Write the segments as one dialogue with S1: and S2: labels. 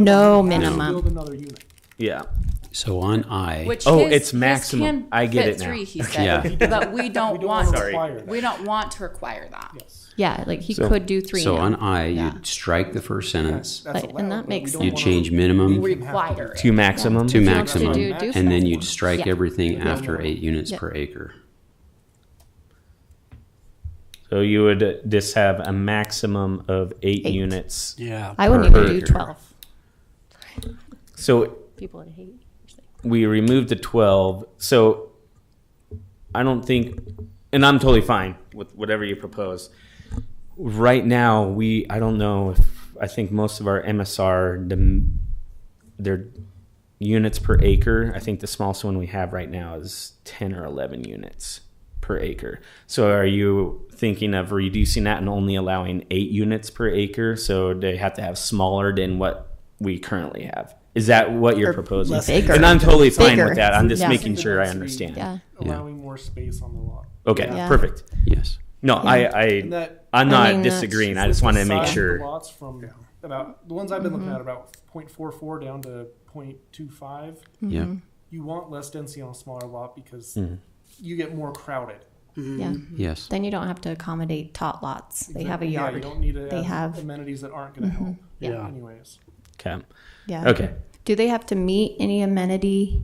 S1: No
S2: Build
S1: minimum.
S2: another unit.
S3: Yeah.
S4: So on I,
S5: Which
S3: Oh,
S5: his-
S3: it's
S5: his
S3: maximum.
S5: can
S3: I get
S5: fit
S3: it now.
S5: Three, he
S4: Yeah.
S5: said, but we
S2: We
S5: don't
S2: don't
S5: want,
S2: wanna require that.
S5: we don't want to require that.
S2: Yes.
S1: Yeah, like he could do three.
S4: so
S1: now.
S4: on I,
S1: Yeah.
S4: you'd strike the first sentence,
S2: That's
S1: Like, and
S2: allowed,
S1: that
S2: but we
S1: makes
S2: don't
S4: you'd
S2: wanna-
S4: change
S2: we
S4: minimum
S2: don't have
S5: Require
S2: do
S5: it.
S3: To maximum?
S4: to
S1: want to
S4: maximum,
S1: do- do
S4: and then you'd
S2: maximum.
S4: strike
S1: Yeah.
S4: everything after
S2: Yeah.
S4: eight units
S1: Yeah.
S4: per acre.
S3: So you would just have a maximum of eight,
S1: Eight.
S3: units.
S4: Yeah.
S1: I wouldn't even do twelve.
S3: So
S1: People would hate.
S3: we removed the 12. So I don't think, and I'm totally fine with whatever you propose. Right now, we, I don't know if, I think most of our MSR, the, their units per acre, I think the smallest one we have right now is 10 or 11 units per acre. So are you thinking of reducing that and only allowing eight units per acre? So they have to have smaller than what we currently have? Is that what you're
S1: Or
S3: proposing?
S1: less Bigger.
S3: And I'm totally fine
S1: Bigger.
S3: with that. I'm just
S1: Yeah.
S3: making sure I understand.
S1: Yeah.
S2: Allowing more space on the lot.
S3: Okay,
S1: Yeah.
S3: perfect.
S4: Yes.
S3: No, I,
S2: And
S3: I,
S2: that.
S3: I'm
S1: I
S3: not
S1: mean, that's-
S3: disagreeing. I just want to
S2: the
S3: make
S2: size of the
S3: sure.
S2: Lots from about, the ones I've been looking
S1: Mm-hmm.
S2: at, about point four four down to point two five.
S1: Mm-hmm.
S4: Yeah.
S2: You want less density on a smaller lot because you get more crowded.
S1: Yeah.
S4: Yes.
S1: Then you don't have to accommodate tot lots. They have a
S2: Mm. Yeah, you
S1: yard.
S2: don't need to
S1: They
S2: add
S1: have- Mm-hmm.
S2: amenities that aren't gonna help.
S1: Yeah.
S2: Anyways.
S3: Okay.
S1: Yeah.
S3: Okay.
S1: Do they have to meet any amenity?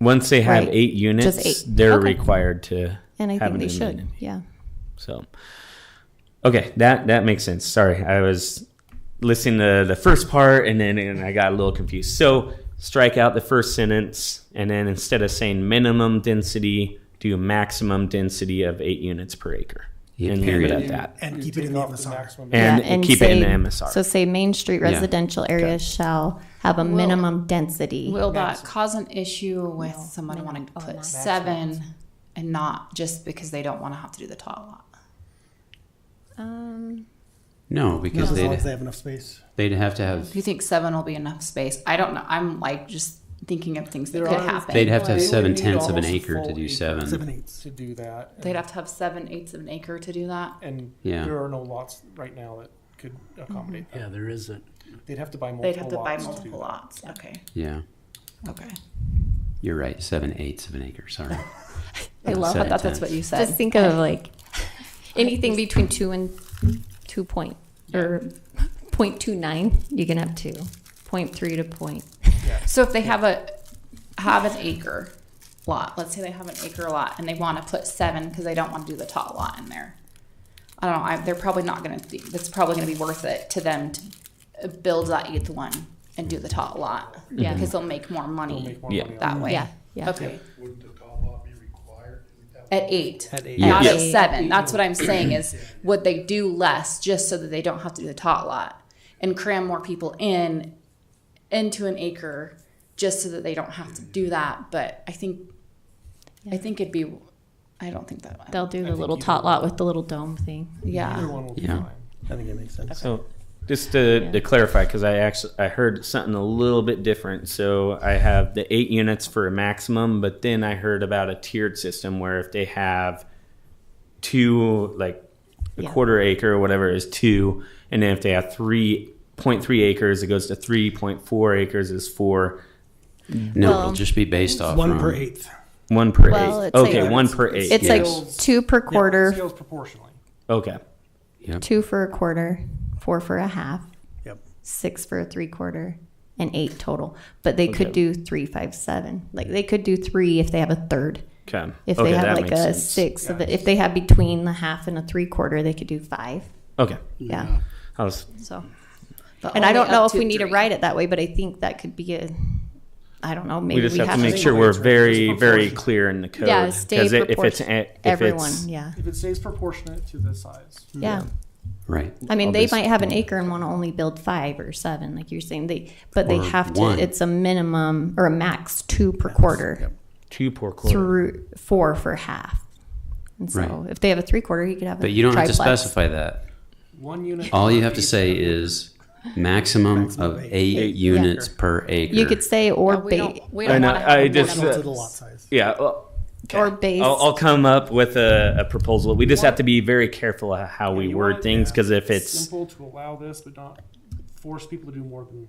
S3: Once they have
S1: Right.
S3: eight units,
S1: eight.
S3: they're
S1: Okay.
S3: required to
S1: And I
S3: have
S1: think
S3: an
S1: they should.
S3: amendment.
S1: Yeah.
S3: So, okay, that that makes sense. Sorry, I was listening to the first part and then and I got a little confused. So, strike out the first sentence, and then instead of saying minimum density, do maximum density of eight units per acre,
S4: Yeah,
S3: and leave it
S4: period.
S3: at that.
S6: And keep it in the MSR.
S2: Maximum.
S3: And
S1: yeah,
S3: keep it in the MSR.
S1: So say Main Street residential areas shall have a minimum density.
S5: Will that cause an issue with someone wanting to put seven and not just because they don't want to have to do the tall lot?
S1: Um,
S4: No,
S6: As
S4: because
S6: long as
S4: they'd,
S6: they have enough space.
S4: they'd have to have,
S5: Do you think seven will be enough space? I don't know. I'm like just thinking of things that
S2: There
S5: could
S2: are-
S5: happen.
S4: they'd have to have
S2: They would
S4: seven
S2: need
S4: tenths of an
S2: almost a
S4: acre to
S2: full
S4: do
S2: acre.
S6: Seven
S4: seven.
S6: eighths.
S2: To do that.
S5: They'd have to have seven eighths of an acre to do that.
S2: And
S4: Yeah.
S2: there are no lots right now that could accommodate that.
S7: Yeah, there isn't.
S2: They'd have to buy multiple
S5: They'd have to buy
S2: lots do
S5: multiple
S2: that.
S5: lots. Okay.
S4: Yeah.
S5: Okay.
S4: You're right. Seven eighths of an acre. Sorry.
S5: I
S4: Yeah,
S5: love
S4: seven
S5: that. That's what
S4: tenths.
S5: you
S1: just
S5: said.
S1: think of like anything between two and two point or point two nine, you can have two. Point three to point.
S5: So if they have a have an acre lot, let's say they have an acre lot and they want to put seven because they don't want to do the top lot in there. I don't know. I, they're probably not going to. That's probably going to be worth it to them to uh, build that eighth one and do the top lot.
S1: Yeah.
S5: because they'll make more money
S2: Make more
S3: Yeah.
S2: money on
S5: that way.
S1: Yeah, yeah.
S5: Okay.
S8: Wouldn't the tall lot be required?
S5: At eight.
S6: At eight.
S5: Not
S1: Yeah.
S5: at
S1: Yes.
S5: seven. That's what I'm saying is would they do less just so that they don't have to do the tot lot and cram more people in into an acre just so that they don't have to do that. But I think I think it'd be I don't think that
S1: They'll do the little
S2: either
S1: tot lot with the little dome thing.
S2: Either
S5: yeah.
S2: one will be
S4: Yeah.
S2: fine.
S6: I think it makes sense.
S3: So, just to,
S1: Yeah.
S3: to clarify, because I actually I heard something a little bit different. So I have the eight units for a maximum, but then I heard about a tiered system where if they have two, like a
S1: Yeah.
S3: quarter acre or whatever is two, and then if they have three point three acres, it goes to three point four acres is four,
S4: No,
S1: Well,
S4: it'll just be based off.
S6: One
S4: from-
S6: per eighth.
S3: one per
S1: Well,
S3: eight.
S1: it's
S3: Okay,
S1: like-
S3: one per eight.
S1: It's like
S2: Scales.
S1: two per quarter,
S2: Scales proportionally.
S3: okay.
S4: Yep.
S1: two for a quarter, four for a half,
S6: Yep.
S1: six for a three quarter, and eight total. But they could do three, five, seven. Like they could do three if they have a third.
S3: Okay.
S1: If
S3: okay,
S1: they have
S3: that
S1: like a
S3: makes sense.
S1: six of it, if they have between the half and a three quarter, they could do five.
S3: Okay.
S1: Yeah.
S3: I was
S1: So,
S5: But
S1: and I
S5: only
S1: don't
S5: up
S1: know if
S5: to
S1: we need to
S5: three.
S1: write it that way, but I think that could be a, I don't know, maybe
S3: we
S1: we
S3: just have, to make
S2: to-
S3: sure we're very,
S2: Just
S3: very
S2: proportion.
S3: clear in the code.
S1: Yeah, stay
S3: 'Cause it- if it's
S1: proportion-
S3: a- if
S1: Everyone,
S3: it's-
S1: yeah,
S2: If it stays proportionate to the size.
S1: yeah.
S4: Right.
S1: I mean,
S3: I'll
S1: they
S3: just-
S1: might have an acre and want to only build five or seven, like you're saying, they, but they
S4: Or
S1: have to,
S4: one.
S1: it's a minimum or a max two per quarter.
S3: two per quarter.
S1: Through, four for half. And so
S4: Right.
S1: if they have a three quarter, you could have a
S4: But you don't have to
S1: triplex.
S4: specify that.
S2: One unit.
S4: All you
S2: per
S4: have to
S2: piece.
S4: say is maximum of eight units per acre.
S1: You could say or
S5: Yeah, we
S1: ba-
S5: don't, we
S3: I
S5: don't
S3: know,
S5: want to have
S3: I
S5: more
S3: just-
S5: than-
S6: Equal to the lot size.
S3: Yeah. Well, okay.
S1: Or base-
S3: I'll, I'll come up with a, a proposal. We just have to be very careful of how we
S2: You
S3: word
S2: want-
S3: things
S2: yeah.
S3: because if it's
S2: Simple to allow this, but not force people to do more than